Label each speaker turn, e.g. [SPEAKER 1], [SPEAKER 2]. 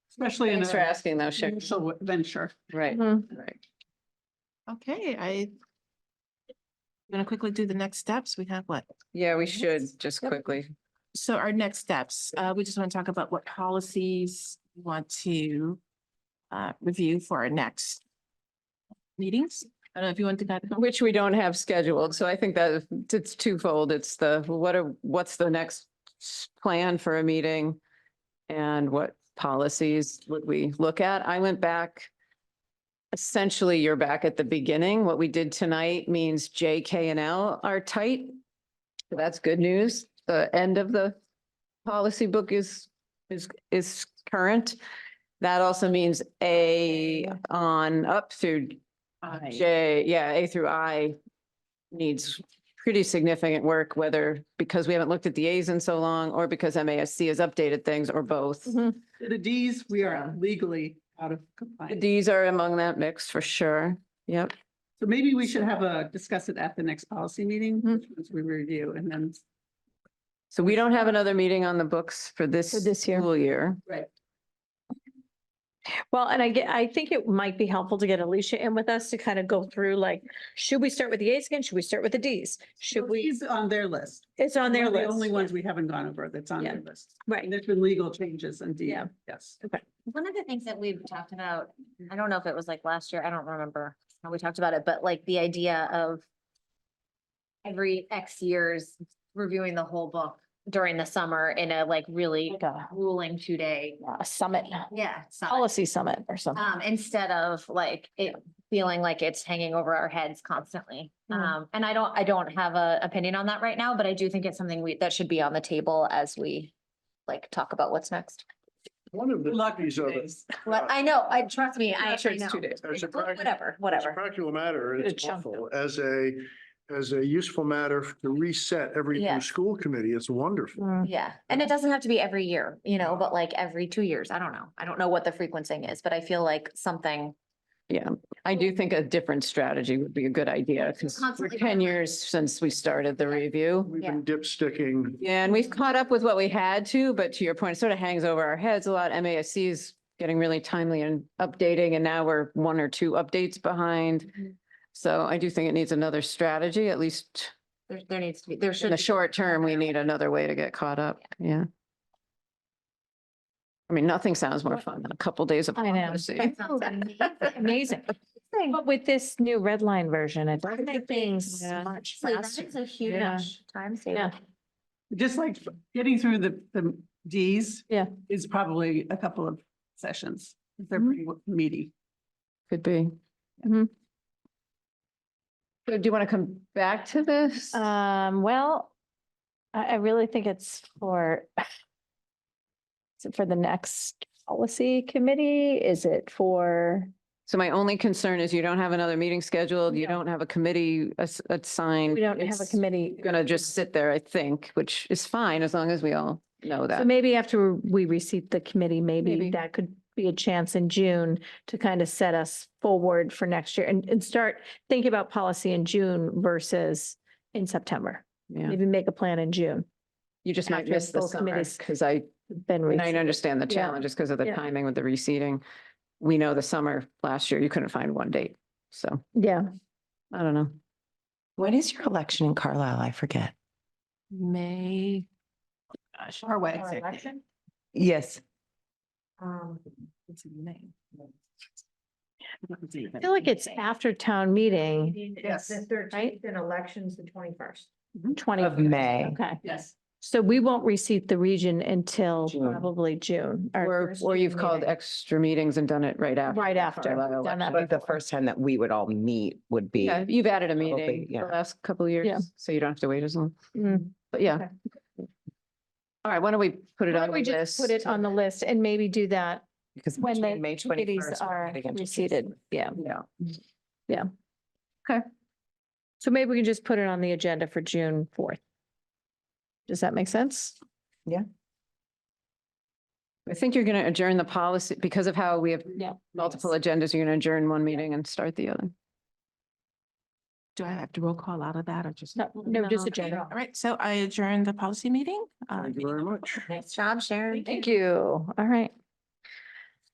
[SPEAKER 1] especially in
[SPEAKER 2] Thanks for
[SPEAKER 1] a.
[SPEAKER 2] asking though, Shar.
[SPEAKER 1] initial venture.
[SPEAKER 2] Right,
[SPEAKER 3] Mhm.
[SPEAKER 2] right.
[SPEAKER 3] Okay, I. I'm Gonna quickly do the next steps. We have what?
[SPEAKER 2] Yeah, we should just
[SPEAKER 3] Yep.
[SPEAKER 2] quickly.
[SPEAKER 3] So our next steps, uh, we just want to talk about what policies we want to uh, review for our next meetings. I don't know if you want to. kind of-
[SPEAKER 2] Which we don't have scheduled, so I think that it's twofold. It's the, what are, what's the next s- plan for a meeting? And what policies would we look at? I went back. Essentially, you're back at the beginning. What we did tonight means J, K, and L are tight. So That's good news. The end of the policy book is, is, is current. That also means A on up through
[SPEAKER 3] Uh,
[SPEAKER 2] J, yeah, A through I needs pretty significant work, whether because we haven't looked at the As in so long, or because MASC has updated things, or both.
[SPEAKER 4] Mm-hmm.
[SPEAKER 1] The Ds, we are legally out of compliance.
[SPEAKER 2] These are among that mix for sure. Yep.
[SPEAKER 1] So maybe we should have a, discuss it at the next policy meeting,
[SPEAKER 2] Mhm.
[SPEAKER 1] which
[SPEAKER 4] Mm-hmm.
[SPEAKER 1] ones we review and then.
[SPEAKER 2] So we don't have another meeting on the books for this.
[SPEAKER 4] For this year.
[SPEAKER 2] School year.
[SPEAKER 1] Right.
[SPEAKER 4] Well, and I get, I think it might be helpful to get Alicia in with us to kind of go through like, should we start with the As again? Should we start with the Ds? Should we,
[SPEAKER 1] He's on their list.
[SPEAKER 4] it's on
[SPEAKER 1] One
[SPEAKER 4] their
[SPEAKER 1] of The only
[SPEAKER 4] list.
[SPEAKER 1] ones we haven't gone over that's on
[SPEAKER 4] Yeah.
[SPEAKER 1] their list. And
[SPEAKER 4] Right.
[SPEAKER 1] there's been legal changes indeed.
[SPEAKER 4] Yeah.
[SPEAKER 1] Yes.
[SPEAKER 5] One of the things that we've talked about, I don't know if it was like last year, I don't remember how we talked about it, but like the idea of every X years reviewing the whole book during the summer in a like really
[SPEAKER 4] Like a,
[SPEAKER 5] grueling two day,
[SPEAKER 4] a summit,
[SPEAKER 5] yeah. summit.
[SPEAKER 4] policy summit or something.
[SPEAKER 5] Um, instead of like it feeling like it's hanging over our heads constantly.
[SPEAKER 4] Mhm.
[SPEAKER 5] Um, and I don't, I don't have a opinion on that right now, but I do think it's something we, that should be on the table as we like talk about what's next.
[SPEAKER 6] One of the
[SPEAKER 1] Luck
[SPEAKER 6] beauties of it,
[SPEAKER 1] days.
[SPEAKER 5] Well, I know, I, trust me, I, I know.
[SPEAKER 2] days.
[SPEAKER 6] as a prac-
[SPEAKER 5] Whatever,
[SPEAKER 6] as a
[SPEAKER 5] whatever.
[SPEAKER 6] practical matter,
[SPEAKER 4] A
[SPEAKER 6] it's
[SPEAKER 4] chunk of
[SPEAKER 6] helpful, as a, as a useful matter to reset every new
[SPEAKER 5] Yeah.
[SPEAKER 6] school committee, it's wonderful.
[SPEAKER 5] Yeah, and it doesn't have to be every year, you know, but like every two years, I don't know. I don't know what the frequencing is, but I feel like something.
[SPEAKER 2] Yeah, I do think a different strategy would be a good idea because we're
[SPEAKER 5] Constantly-
[SPEAKER 2] ten years since we started the review.
[SPEAKER 6] We've
[SPEAKER 5] Yeah.
[SPEAKER 6] been dipsticking,
[SPEAKER 2] Yeah, and we've caught up with what we had to, but to your point, it sort of hangs over our heads a lot. MASC is getting really timely and updating, and now we're one or two updates behind.
[SPEAKER 5] Mhm.
[SPEAKER 2] So I do think it needs another strategy, at least
[SPEAKER 5] There, there needs to be, there
[SPEAKER 2] in
[SPEAKER 5] should.
[SPEAKER 2] the
[SPEAKER 5] be.
[SPEAKER 2] short term, we need another way to get caught up, yeah. I mean, nothing sounds more fun than a couple days of.
[SPEAKER 4] I know.
[SPEAKER 2] policy.
[SPEAKER 5] That sounds Oh, amazing.
[SPEAKER 4] Amazing. But with this new red line version, it does make things
[SPEAKER 2] Yeah.
[SPEAKER 4] much
[SPEAKER 5] So that
[SPEAKER 4] faster.
[SPEAKER 5] is a
[SPEAKER 4] Yeah.
[SPEAKER 5] huge time
[SPEAKER 4] Yeah.
[SPEAKER 5] saver.
[SPEAKER 1] Just like getting through the, the Ds.
[SPEAKER 4] Yeah.
[SPEAKER 1] Is probably a couple of sessions. They're
[SPEAKER 4] Mhm.
[SPEAKER 1] pretty meaty.
[SPEAKER 2] Could be.
[SPEAKER 4] Mhm.
[SPEAKER 2] So do you want to come back to this?
[SPEAKER 4] Um, well, I, I really think it's for is it for the next policy committee? Is it for?
[SPEAKER 2] So my only concern is you don't have another meeting scheduled, you don't have a committee ass- assigned.
[SPEAKER 4] We don't have a
[SPEAKER 2] It's
[SPEAKER 4] committee.
[SPEAKER 2] Gonna just sit there, I think, which is fine, as long as we all know
[SPEAKER 4] So
[SPEAKER 2] that.
[SPEAKER 4] maybe after we receive the committee,
[SPEAKER 2] Maybe.
[SPEAKER 4] maybe that could be a chance in June to kind of set us forward for next year and, and start thinking about policy in June versus in September.
[SPEAKER 2] Yeah,
[SPEAKER 4] Maybe make a plan in June.
[SPEAKER 2] you just might
[SPEAKER 4] after
[SPEAKER 2] miss the
[SPEAKER 4] full
[SPEAKER 2] summer,
[SPEAKER 4] committees.
[SPEAKER 2] because I,
[SPEAKER 4] Then
[SPEAKER 2] and
[SPEAKER 4] we,
[SPEAKER 2] I understand the
[SPEAKER 4] Yeah.
[SPEAKER 2] challenges because of the
[SPEAKER 4] Yeah.
[SPEAKER 2] timing with the reseeding. We know the summer last year, you couldn't find one date, so
[SPEAKER 4] yeah,
[SPEAKER 2] I don't know.
[SPEAKER 7] When is your election in Carlisle? I forget.
[SPEAKER 3] May.
[SPEAKER 1] Our way.
[SPEAKER 7] Yes.
[SPEAKER 4] I feel like it's after town meeting,
[SPEAKER 1] Yes.
[SPEAKER 4] right? Mm-hmm.
[SPEAKER 8] Then elections the twenty-first.
[SPEAKER 4] Twenty.
[SPEAKER 7] Of May.
[SPEAKER 4] Okay,
[SPEAKER 1] Yes.
[SPEAKER 4] so we won't receive the region until
[SPEAKER 7] June.
[SPEAKER 4] probably June or
[SPEAKER 2] Or, or you've called extra meetings and done it right after.
[SPEAKER 4] right after.
[SPEAKER 2] Carlisle
[SPEAKER 4] Done that
[SPEAKER 7] But the
[SPEAKER 4] before.
[SPEAKER 7] first time that we would all meet would be.
[SPEAKER 2] Yeah, you've added a
[SPEAKER 7] Probably,
[SPEAKER 2] meeting the
[SPEAKER 7] yeah.
[SPEAKER 2] last couple of
[SPEAKER 4] Yeah.
[SPEAKER 2] years, so you don't have to wait as long,
[SPEAKER 4] Mm.
[SPEAKER 2] but yeah.
[SPEAKER 4] Okay.
[SPEAKER 2] All right, why don't we put it
[SPEAKER 4] Why
[SPEAKER 2] on
[SPEAKER 4] don't we
[SPEAKER 2] the
[SPEAKER 4] just
[SPEAKER 2] list?
[SPEAKER 4] put it on the list and maybe do that
[SPEAKER 7] Because
[SPEAKER 4] when
[SPEAKER 7] between
[SPEAKER 4] the
[SPEAKER 7] May
[SPEAKER 4] committees
[SPEAKER 7] 21st, we're
[SPEAKER 4] are
[SPEAKER 7] getting into-
[SPEAKER 4] reseated. Yeah.
[SPEAKER 2] Yeah.
[SPEAKER 4] So maybe we can just put it on the agenda for June fourth. Does that make sense?
[SPEAKER 2] I think you're going to adjourn the policy because of how we have
[SPEAKER 4] Yeah.
[SPEAKER 2] multiple agendas. You're going to adjourn one meeting and start the other.
[SPEAKER 3] Do I have to roll call out of that or just?
[SPEAKER 4] No, no, just
[SPEAKER 3] Okay.
[SPEAKER 4] agenda.
[SPEAKER 3] All right, so I adjourn the policy meeting. Uh,
[SPEAKER 6] thank you very much.
[SPEAKER 5] Nice job, Sharon.
[SPEAKER 4] Thank you. All right.